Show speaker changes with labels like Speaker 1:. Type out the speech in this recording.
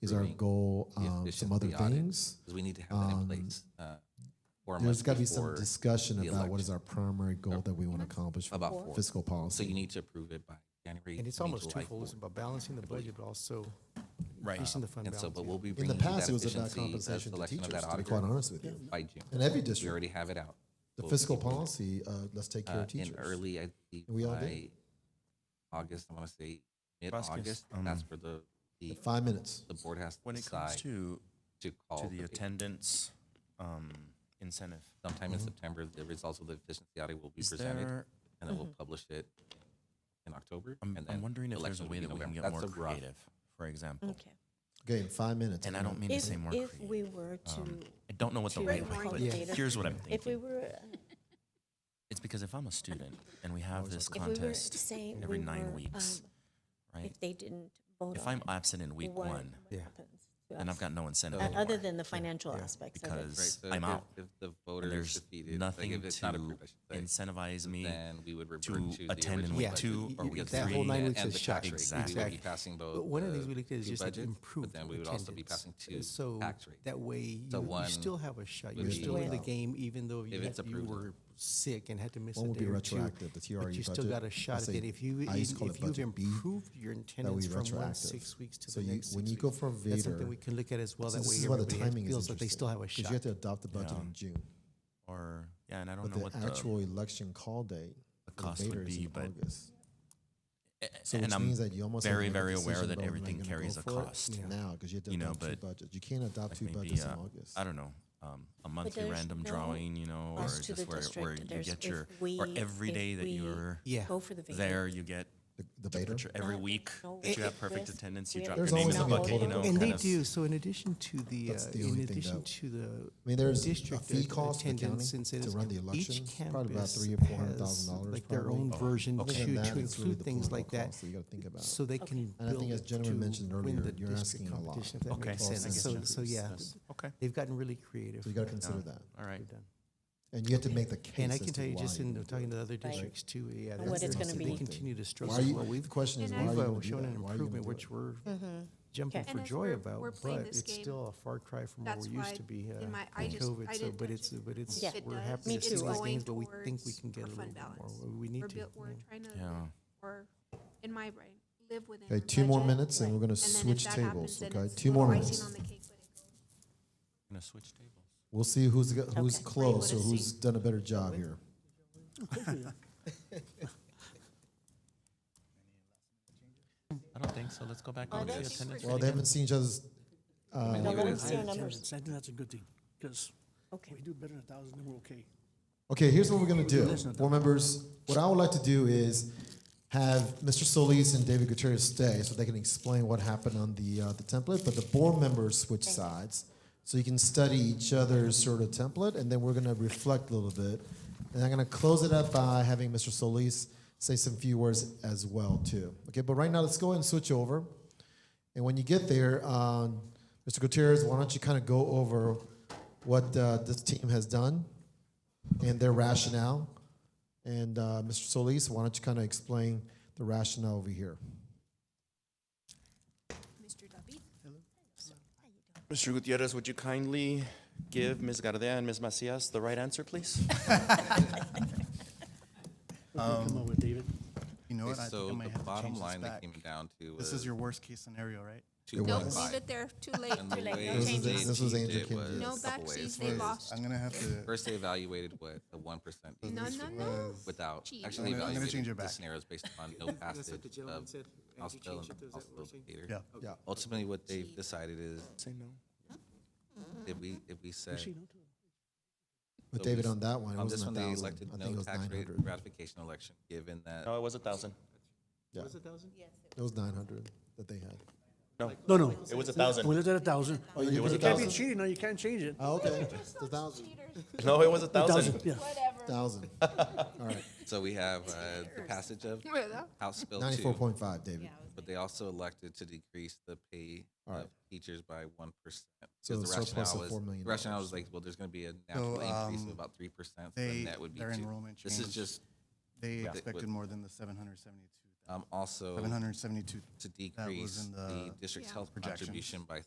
Speaker 1: Is our
Speaker 2: recruiting.
Speaker 1: goal
Speaker 2: the
Speaker 1: um, some
Speaker 2: efficiency
Speaker 1: other
Speaker 2: audit,
Speaker 1: things?
Speaker 2: Because we need to have that in
Speaker 1: Um,
Speaker 2: place. uh, four months
Speaker 1: There's got to be some
Speaker 2: before
Speaker 1: discussion
Speaker 2: the
Speaker 1: about what is
Speaker 2: election.
Speaker 1: our primary goal that we want to accomplish
Speaker 2: About
Speaker 1: for
Speaker 2: four.
Speaker 1: fiscal
Speaker 2: So
Speaker 1: policy.
Speaker 2: you need to approve it by January.
Speaker 3: And it's
Speaker 2: I mean,
Speaker 3: almost
Speaker 2: July
Speaker 3: twofold, it's
Speaker 2: 4th.
Speaker 3: about balancing the budget, but also
Speaker 2: Right.
Speaker 3: increasing the fund
Speaker 2: And
Speaker 3: balance.
Speaker 2: so, but
Speaker 3: yeah.
Speaker 2: we'll be
Speaker 1: In
Speaker 2: bringing
Speaker 1: the
Speaker 2: you that
Speaker 1: past, it was about
Speaker 2: efficiency, that's
Speaker 1: compensation to
Speaker 2: selection of
Speaker 1: teachers,
Speaker 2: that
Speaker 1: to be
Speaker 2: auditor
Speaker 1: quite honest with you.
Speaker 2: By June.
Speaker 1: In every
Speaker 2: We
Speaker 1: district.
Speaker 2: already have it out.
Speaker 1: The
Speaker 2: We'll be
Speaker 1: fiscal
Speaker 2: doing it,
Speaker 1: policy, uh, let's take care
Speaker 2: uh,
Speaker 1: of teachers.
Speaker 2: In early, I believe,
Speaker 1: And we all did.
Speaker 2: by August, I want to say mid-August,
Speaker 4: um,
Speaker 2: that's where the,
Speaker 1: In
Speaker 2: the,
Speaker 1: Five minutes.
Speaker 2: the board has to
Speaker 4: When it comes
Speaker 2: decide
Speaker 4: to,
Speaker 2: to call.
Speaker 4: to the
Speaker 2: debate.
Speaker 4: attendance um, incentive,
Speaker 2: Sometime in September, the results of the efficiency audit will be
Speaker 4: is
Speaker 2: presented
Speaker 4: there,
Speaker 2: and then we'll publish it in October.
Speaker 4: I'm,
Speaker 2: and
Speaker 4: I'm
Speaker 2: then
Speaker 4: wondering if there's a
Speaker 2: election will
Speaker 4: way
Speaker 2: be
Speaker 4: that we can
Speaker 2: November.
Speaker 4: get more
Speaker 2: That's a rough-
Speaker 4: creative, for example.
Speaker 5: Okay.
Speaker 1: Okay, in five minutes.
Speaker 4: And I don't mean to
Speaker 5: If,
Speaker 4: say more
Speaker 5: if we
Speaker 4: creative.
Speaker 5: were to,
Speaker 4: Um, I don't know what the
Speaker 5: to
Speaker 4: right
Speaker 5: get
Speaker 4: way,
Speaker 5: more
Speaker 4: but
Speaker 5: creative.
Speaker 4: here's what I'm
Speaker 5: if we
Speaker 4: thinking.
Speaker 5: were, uh,
Speaker 4: It's because if I'm a student and we have this
Speaker 5: if we were to
Speaker 4: contest
Speaker 5: say we
Speaker 4: every
Speaker 5: were,
Speaker 4: nine weeks,
Speaker 5: um,
Speaker 4: right?
Speaker 5: if they didn't vote
Speaker 4: If
Speaker 5: on
Speaker 4: I'm
Speaker 5: it,
Speaker 4: absent in week
Speaker 5: what-
Speaker 4: one,
Speaker 5: what
Speaker 3: Yeah.
Speaker 5: happens to
Speaker 4: then
Speaker 5: us?
Speaker 4: I've got no incentive.
Speaker 5: Uh, Other
Speaker 4: anymore.
Speaker 5: than the financial aspects of it.
Speaker 2: Right,
Speaker 4: because
Speaker 2: so
Speaker 4: I'm
Speaker 2: if-
Speaker 4: out.
Speaker 2: If the
Speaker 4: And
Speaker 2: voter is
Speaker 4: there's
Speaker 2: defeated, like,
Speaker 4: nothing
Speaker 2: if it's not
Speaker 4: to
Speaker 2: approved, I should say,
Speaker 4: incentivize me
Speaker 2: then we would revert to
Speaker 4: to
Speaker 2: the
Speaker 4: attend in
Speaker 2: original
Speaker 4: week
Speaker 3: Yeah.
Speaker 4: two
Speaker 3: Y-
Speaker 4: or
Speaker 3: y-
Speaker 4: week
Speaker 3: that
Speaker 4: three.
Speaker 3: whole nine
Speaker 2: and-
Speaker 3: weeks
Speaker 2: and
Speaker 3: is
Speaker 2: the
Speaker 3: shut.
Speaker 2: tax rate. We would be
Speaker 3: Exactly.
Speaker 2: passing
Speaker 3: But
Speaker 2: both.
Speaker 3: one of the things
Speaker 2: uh,
Speaker 3: we looked at is
Speaker 2: two
Speaker 3: just like
Speaker 2: budgets,
Speaker 3: improve
Speaker 2: But then we would also be passing two
Speaker 3: attendance. So
Speaker 2: tax rates.
Speaker 3: That way,
Speaker 2: So
Speaker 3: you, you
Speaker 2: one
Speaker 3: still have a shot.
Speaker 2: would
Speaker 3: You're still in the
Speaker 5: be-
Speaker 3: game, even though
Speaker 2: If
Speaker 3: you,
Speaker 2: it's
Speaker 3: had- you
Speaker 2: approved.
Speaker 3: were sick and had to miss a
Speaker 1: One would be
Speaker 3: day or two.
Speaker 1: retroactive, the
Speaker 3: But
Speaker 1: TRE
Speaker 3: you still
Speaker 1: budget.
Speaker 3: got a
Speaker 1: I
Speaker 3: shot at
Speaker 1: say-
Speaker 3: it. If you,
Speaker 1: I used to
Speaker 3: even-
Speaker 1: call it
Speaker 3: if you've
Speaker 1: budget B,
Speaker 3: improved your
Speaker 1: that we
Speaker 3: attendance from one
Speaker 1: retroactive.
Speaker 3: six weeks to
Speaker 1: So
Speaker 3: the
Speaker 1: you-
Speaker 3: next
Speaker 1: when you
Speaker 3: six
Speaker 1: go
Speaker 3: weeks,
Speaker 1: for
Speaker 3: That's something
Speaker 1: Vader,
Speaker 3: we can look at as well.
Speaker 1: So
Speaker 3: That
Speaker 1: this
Speaker 3: way
Speaker 1: is why the
Speaker 3: everybody has-
Speaker 1: timing is
Speaker 3: feels that they
Speaker 1: interesting,
Speaker 3: still have a
Speaker 1: 'cause you have
Speaker 3: shot.
Speaker 1: to adopt the budget
Speaker 4: Yeah.
Speaker 1: in June,
Speaker 4: Or, yeah, and I don't
Speaker 1: but
Speaker 4: know what
Speaker 1: the
Speaker 4: the,
Speaker 1: actual election call date
Speaker 4: the
Speaker 1: for
Speaker 4: cost
Speaker 1: Vader
Speaker 4: would
Speaker 1: is
Speaker 4: be,
Speaker 1: in
Speaker 4: but
Speaker 1: August.
Speaker 4: A-
Speaker 1: So
Speaker 4: a-
Speaker 1: which
Speaker 4: and I'm
Speaker 1: means that you almost have to
Speaker 4: very,
Speaker 1: make a
Speaker 4: very aware
Speaker 1: decision
Speaker 4: that
Speaker 1: about, am I
Speaker 4: everything
Speaker 1: gonna go
Speaker 4: carries a
Speaker 1: for it
Speaker 4: cost.
Speaker 1: Now, because you have to
Speaker 4: You know,
Speaker 1: adopt two
Speaker 4: but
Speaker 1: budgets. You can't adopt
Speaker 4: Like
Speaker 1: two
Speaker 4: maybe,
Speaker 1: budgets in
Speaker 4: uh,
Speaker 1: August.
Speaker 4: I don't know, um, a monthly
Speaker 5: there's
Speaker 4: random
Speaker 5: no
Speaker 4: drawing, you know, or
Speaker 5: cost to the
Speaker 4: just where, where
Speaker 5: district.
Speaker 4: you
Speaker 5: There's-
Speaker 4: get your,
Speaker 5: if
Speaker 4: or
Speaker 5: we-
Speaker 4: every
Speaker 5: if
Speaker 4: day that
Speaker 5: we
Speaker 4: you're
Speaker 3: Yeah.
Speaker 5: Go for the vacation.
Speaker 4: there, you get
Speaker 1: The- The Vader?
Speaker 4: your- every
Speaker 5: Not-
Speaker 4: week
Speaker 5: no
Speaker 4: that you have
Speaker 5: risk.
Speaker 4: perfect attendance, you
Speaker 5: We
Speaker 4: drop your
Speaker 1: There's
Speaker 4: name in the
Speaker 1: always gonna be
Speaker 4: bucket, you
Speaker 1: a
Speaker 4: know.
Speaker 1: vote.
Speaker 3: And
Speaker 4: kind
Speaker 3: they
Speaker 4: of-
Speaker 3: do. So in addition to the,
Speaker 1: Oh, That's
Speaker 3: uh,
Speaker 1: the
Speaker 3: in
Speaker 1: only thing
Speaker 3: addition
Speaker 1: that-
Speaker 3: to the
Speaker 1: I mean, there's a
Speaker 3: district
Speaker 1: fee
Speaker 3: uh,
Speaker 1: cost to the county
Speaker 3: attendance
Speaker 1: to
Speaker 3: incentives,
Speaker 1: run the
Speaker 3: each
Speaker 1: election,
Speaker 3: campus
Speaker 1: probably about three or four hundred
Speaker 3: has,
Speaker 1: thousand dollars.
Speaker 3: Like their own version
Speaker 1: Other
Speaker 3: to,
Speaker 1: than that, it's
Speaker 3: to
Speaker 1: really
Speaker 3: include
Speaker 1: the
Speaker 3: things
Speaker 1: political
Speaker 3: like that,
Speaker 1: cost you got to think about.
Speaker 3: so they can
Speaker 1: And I think
Speaker 3: build
Speaker 1: as gentleman
Speaker 3: to
Speaker 1: mentioned
Speaker 3: win
Speaker 1: earlier,
Speaker 3: the
Speaker 1: you're
Speaker 3: district
Speaker 1: asking a lot.
Speaker 3: competition, if that
Speaker 4: Okay,
Speaker 3: makes
Speaker 4: I
Speaker 3: sense.
Speaker 4: guess
Speaker 3: So,
Speaker 4: that
Speaker 3: so
Speaker 4: makes
Speaker 3: yeah,
Speaker 4: sense. Okay,
Speaker 3: they've gotten really creative.
Speaker 1: So you got to
Speaker 3: with that.
Speaker 1: consider that,
Speaker 4: all right.
Speaker 3: They've done.
Speaker 1: and you have to make the case.
Speaker 3: And I
Speaker 1: as
Speaker 3: can
Speaker 1: to
Speaker 3: tell you,
Speaker 1: why
Speaker 3: just
Speaker 1: you
Speaker 3: in
Speaker 1: would do
Speaker 3: talking
Speaker 1: it.
Speaker 3: to other districts too, yeah,
Speaker 5: And what
Speaker 3: that's-
Speaker 5: it's gonna
Speaker 3: they
Speaker 5: be.
Speaker 3: continue to struggle.
Speaker 1: Why you,
Speaker 3: Well, we've
Speaker 1: the question is,
Speaker 6: And
Speaker 1: why are
Speaker 6: I've,
Speaker 1: you
Speaker 6: uh,
Speaker 1: going
Speaker 3: We've
Speaker 1: to do
Speaker 3: shown
Speaker 1: that?
Speaker 3: an
Speaker 1: Why are you gonna
Speaker 3: improvement,
Speaker 1: do
Speaker 3: which
Speaker 1: it?
Speaker 3: we're jumping
Speaker 5: Okay.
Speaker 3: for
Speaker 6: Mm-hmm. And as
Speaker 3: joy
Speaker 6: we're-
Speaker 3: about,
Speaker 6: we're playing
Speaker 3: but
Speaker 6: this
Speaker 3: it's
Speaker 6: game,
Speaker 3: still a far cry from what
Speaker 6: that's
Speaker 3: we're used
Speaker 6: why
Speaker 3: to be uh,
Speaker 6: in my- I
Speaker 3: in
Speaker 6: just-
Speaker 3: COVID.
Speaker 6: I
Speaker 3: So,
Speaker 6: didn't
Speaker 3: but
Speaker 6: touch
Speaker 3: it's,
Speaker 6: it.
Speaker 3: but it's,
Speaker 5: Yeah.
Speaker 6: It
Speaker 3: we're
Speaker 6: does.
Speaker 3: happy to
Speaker 5: Me
Speaker 3: see
Speaker 5: too.
Speaker 3: these
Speaker 5: Going
Speaker 3: things, but we think we
Speaker 6: towards
Speaker 3: can get a
Speaker 6: our
Speaker 3: little
Speaker 6: fund
Speaker 3: bit more.
Speaker 6: balance.
Speaker 3: We- We need
Speaker 6: We're
Speaker 3: to.
Speaker 6: built, we're trying to,
Speaker 4: Yeah.
Speaker 6: live- or, in my brain, live within.
Speaker 1: Okay,
Speaker 6: our
Speaker 1: two more
Speaker 6: budget.
Speaker 1: minutes, and
Speaker 5: Right.
Speaker 1: we're going to
Speaker 6: And then if
Speaker 1: switch
Speaker 6: that
Speaker 1: tables.
Speaker 6: happens, then
Speaker 1: Okay,
Speaker 6: it's
Speaker 1: two more
Speaker 6: little
Speaker 1: minutes.
Speaker 6: icing on the cake, but it goes-
Speaker 4: gonna switch tables.
Speaker 1: We'll see who's got, who's
Speaker 5: Okay.
Speaker 1: close or
Speaker 6: Let's see.
Speaker 1: who's done a better job here.
Speaker 4: I don't think so, let's go back over to
Speaker 5: Oh, that's-
Speaker 4: attendance.
Speaker 1: Well, they haven't seen each other's.
Speaker 5: No,
Speaker 1: Uh,
Speaker 5: let
Speaker 2: it
Speaker 5: them
Speaker 2: is.
Speaker 5: see our numbers.
Speaker 7: I think that's a good thing, because
Speaker 5: Okay.
Speaker 7: we do better than a thousand, then we're okay.
Speaker 1: okay, here's what we're going to do, board members. What I would like to do is have Mr. Solis and David Gutierrez stay so they can explain what happened on the uh, the template, but the board members switch sides so you can study each other's sort of template, and then we're going to reflect a little bit, and I'm going to close it up by having Mr. Solis say some few words as well too. Okay, but right now let's go ahead and switch over. And when you get there, um, Mr. Gutierrez, why don't you kind of go over what uh, this team has done and their rationale? And uh, Mr. Solis, why don't you kind of explain the rationale over here?
Speaker 6: Mr. Duffy?
Speaker 4: Mr. Gutierrez, would you kindly give Ms. Gardea and Ms. Macias the right answer, please?
Speaker 7: We'll Come up with David.
Speaker 8: You know what? I
Speaker 2: So
Speaker 8: think I might
Speaker 2: the
Speaker 8: have to
Speaker 2: bottom
Speaker 8: change this
Speaker 2: line that
Speaker 8: back.
Speaker 2: came down to
Speaker 8: This
Speaker 2: was
Speaker 8: is your worst case scenario, right?
Speaker 2: two
Speaker 1: No,
Speaker 2: point
Speaker 1: leave
Speaker 2: five.
Speaker 6: Leave it there, too late.
Speaker 2: And the way
Speaker 1: No changes.
Speaker 2: they
Speaker 1: This was
Speaker 2: achieved
Speaker 1: Andrew
Speaker 2: it was
Speaker 1: Kendra's.
Speaker 6: No
Speaker 2: a couple ways.
Speaker 6: backseas, they
Speaker 8: Is-
Speaker 6: lost.
Speaker 8: I'm gonna have to,
Speaker 2: First, they evaluated what the one percent
Speaker 6: No, no, no.
Speaker 8: was-
Speaker 2: without
Speaker 6: Cheat.
Speaker 2: actually
Speaker 8: I'm gonna- I'm gonna
Speaker 2: evaluating
Speaker 8: change it
Speaker 2: the
Speaker 8: back.
Speaker 2: scenarios based on no passage
Speaker 7: what the gentleman
Speaker 2: of
Speaker 7: said, and you
Speaker 2: hospital
Speaker 7: changed
Speaker 2: and
Speaker 7: it, is that what we're
Speaker 2: hospital
Speaker 7: saying?
Speaker 2: theater.
Speaker 8: yeah.
Speaker 1: Yeah.
Speaker 2: Ultimately, what they've decided is
Speaker 4: Say no.
Speaker 2: if we if we said
Speaker 1: With
Speaker 2: So
Speaker 1: David
Speaker 2: we-
Speaker 1: on that one, it
Speaker 2: on this one
Speaker 1: wasn't
Speaker 2: they
Speaker 1: a thousand.
Speaker 2: elected
Speaker 1: I think it
Speaker 2: no
Speaker 1: was
Speaker 2: tax
Speaker 1: nine
Speaker 2: rate
Speaker 1: hundred.
Speaker 2: ratification election, given that
Speaker 4: No, it was a thousand.
Speaker 1: Yeah,
Speaker 7: Was it a thousand?
Speaker 1: it was nine hundred that they had.
Speaker 7: No, no.
Speaker 4: It was a thousand.
Speaker 7: We looked at a thousand.
Speaker 1: Oh, you put
Speaker 4: was a
Speaker 1: it
Speaker 7: Can't
Speaker 1: thousand.
Speaker 7: be cheating, no, you can't change it.
Speaker 1: Oh, okay, the thousand,
Speaker 4: No, it was a
Speaker 7: Thousand, yeah.
Speaker 1: thousand. All right,
Speaker 2: so we have uh, the passage of House Bill
Speaker 1: ninety-four
Speaker 2: two,
Speaker 1: point five, David.
Speaker 2: but they also elected to decrease the pay
Speaker 1: All
Speaker 2: of
Speaker 1: right.
Speaker 2: teachers by one percent.
Speaker 1: So
Speaker 2: the
Speaker 1: the surplus
Speaker 2: rationale
Speaker 1: of
Speaker 2: was
Speaker 1: $4 million
Speaker 2: the rationale was like, well, there's going to be a natural
Speaker 8: So,
Speaker 2: increase of
Speaker 8: um,
Speaker 2: about three percent, so
Speaker 8: they-
Speaker 2: then that would be
Speaker 8: their
Speaker 2: two.
Speaker 8: enrollment
Speaker 2: This is
Speaker 8: changed.
Speaker 2: just
Speaker 8: They
Speaker 2: Yeah.
Speaker 8: expected more than the seven hundred seventy-two,
Speaker 2: um, also
Speaker 8: seven hundred seventy-two
Speaker 2: to
Speaker 8: that was
Speaker 2: decrease
Speaker 8: in
Speaker 2: the
Speaker 8: the
Speaker 2: district's
Speaker 6: Yeah.
Speaker 2: health
Speaker 8: projections.
Speaker 2: contribution by